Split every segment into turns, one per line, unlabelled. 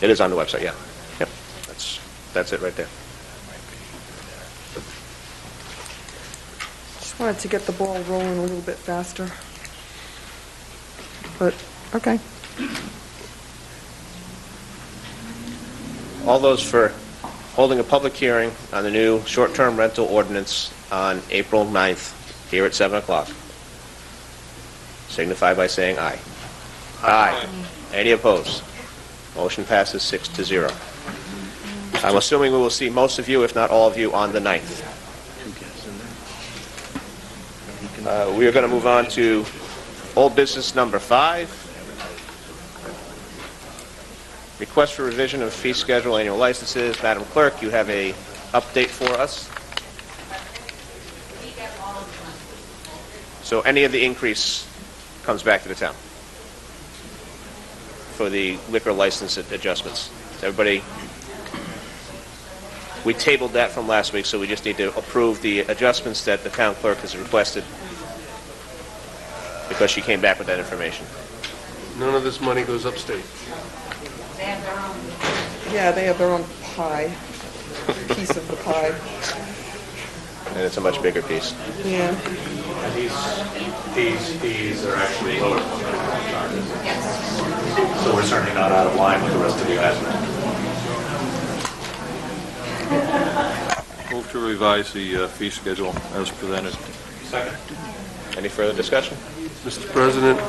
It is on the website, yeah. Yep, that's, that's it right there.
Just wanted to get the ball rolling a little bit faster. But, okay.
All those for holding a public hearing on the new short-term rental ordinance on April 9th, here at 7 o'clock. Signify by saying aye. Aye. Any opposed? Motion passes six to zero. I'm assuming we will see most of you, if not all of you, on the 9th. Uh, We are going to move on to old business number five, Request for revision of fee schedule, annual licenses. Madam Clerk, you have a update for us? So any of the increase comes back to the town for the liquor license adjustments? Is Everybody, we tabled that from last week, so we just need to approve the adjustments that the town clerk has requested because she came back with that information.
None of this money goes upstate.
Yeah, they have their own pie, piece of the pie.
And it's a much bigger piece.
Yeah.
These, these fees are actually lower than what we're charging. So we're certainly not out of line with the rest of the estimate.
Move to revise the uh, fee schedule as presented.
Second.
Any further discussion?
Mr. President,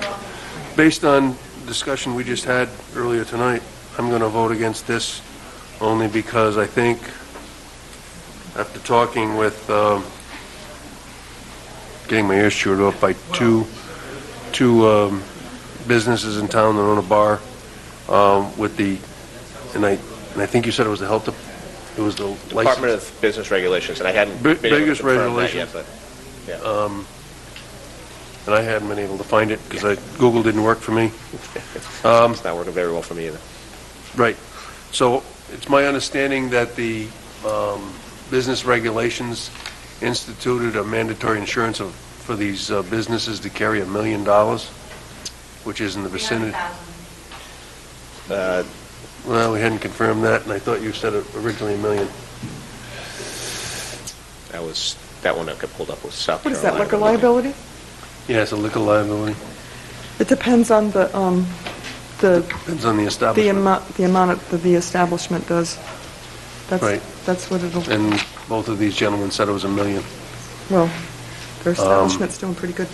based on discussion we just had earlier tonight, I'm going to vote against this only because I think, after talking with, um, getting my ears chewed off by two, two um, businesses in town that own a bar um, with the, and I, and I think you said it was the health, dep- it was the license.
Department of Business Regulations, and I hadn't
Bi-
been able to
biggest
confirm that yet,
regulations.
but,
And I hadn't been able to find it because I, Google didn't work for me. Um,
it's not working very well for me either.
Right. So it's my understanding that the um, business regulations instituted a mandatory insurance of, for these uh, businesses to carry a million dollars, which is in the vicinity.
Uh,
Well, we hadn't confirmed that, and I thought you said it originally a million.
That was, that one that got pulled up was South
What is
Carolina.
that, liquor liability?
Yeah, it's a liquor liability.
It depends on the, um, the,
Depends on the
the
establishment.
amount, the amount that the establishment does. That's,
Right.
that's what it'll,
And both of these gentlemen said it was a million.
well,
um,
their establishment's doing pretty good.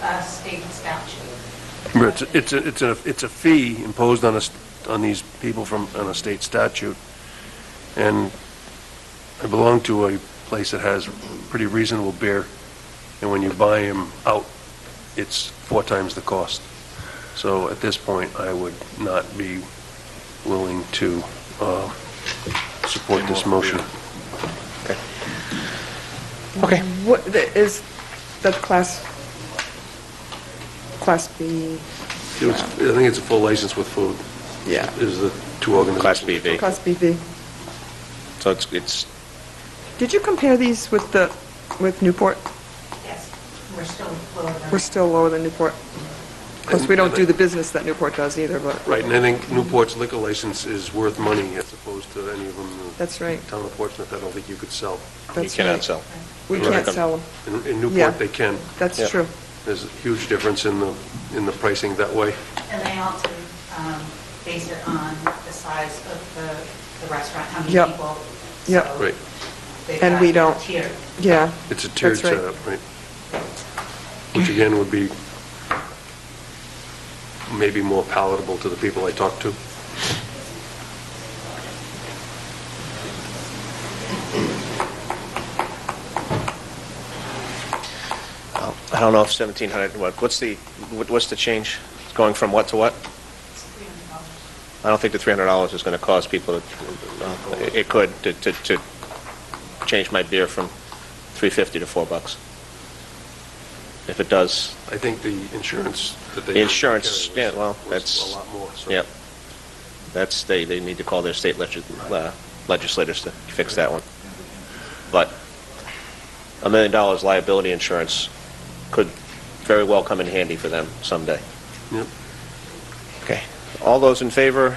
uh, state statute.
It's, it's, a- it's a, it's a fee imposed on us, on these people from, on a state statute. And I belong to a place that has pretty reasonable beer, and when you buy them out, it's four times the cost. So at this point, I would not be willing to, uh, support this motion.
Okay.
What, the- is that class, class B?
It was- I think it's a full license with food,
Yeah.
is the two organizations.
Class BV.
Class BV.
So it's, it's,
Did you compare these with the, with Newport?
Yes, we're still below the-
We're still lower than Newport. Of course, we don't do the business that Newport does either, but.
Right, and I think Newport's liquor license is worth money as opposed to any of them. in the
That's right.
Town of Portsmouth, I don't think you could sell.
you
That's
cannot
right.
sell.
We
Right.
can't sell them.
In in
Yeah.
Newport, they can.
Yeah.
That's true.
There's a huge difference in the, in the pricing that way.
And they also um, base it on the size of the- the restaurant, how many
Yep.
people.
Yep.
So
Right.
they've
And
got
we don't.
tiered.
Yeah,
It's a tiered
That's right.
setup, right? Which again would be maybe more palatable to the people I talk to.
I don't know if 1,700, what, what's the, what- what's the change? It's going from what to what?
It's $300.
I don't think the $300 is going to cause people to, no, it- it could, to, to, to change my beer from 350 to 4 bucks. If it does,
I think the insurance that they.
The insurance,
carry was-
yeah, well,
was
that's-
A lot more, so.
Yep. That's, they, they need to call their state legis- uh, legislators to fix that one. But a million dollars liability insurance could very well come in handy for them someday.
Yep.
Okay. All those in favor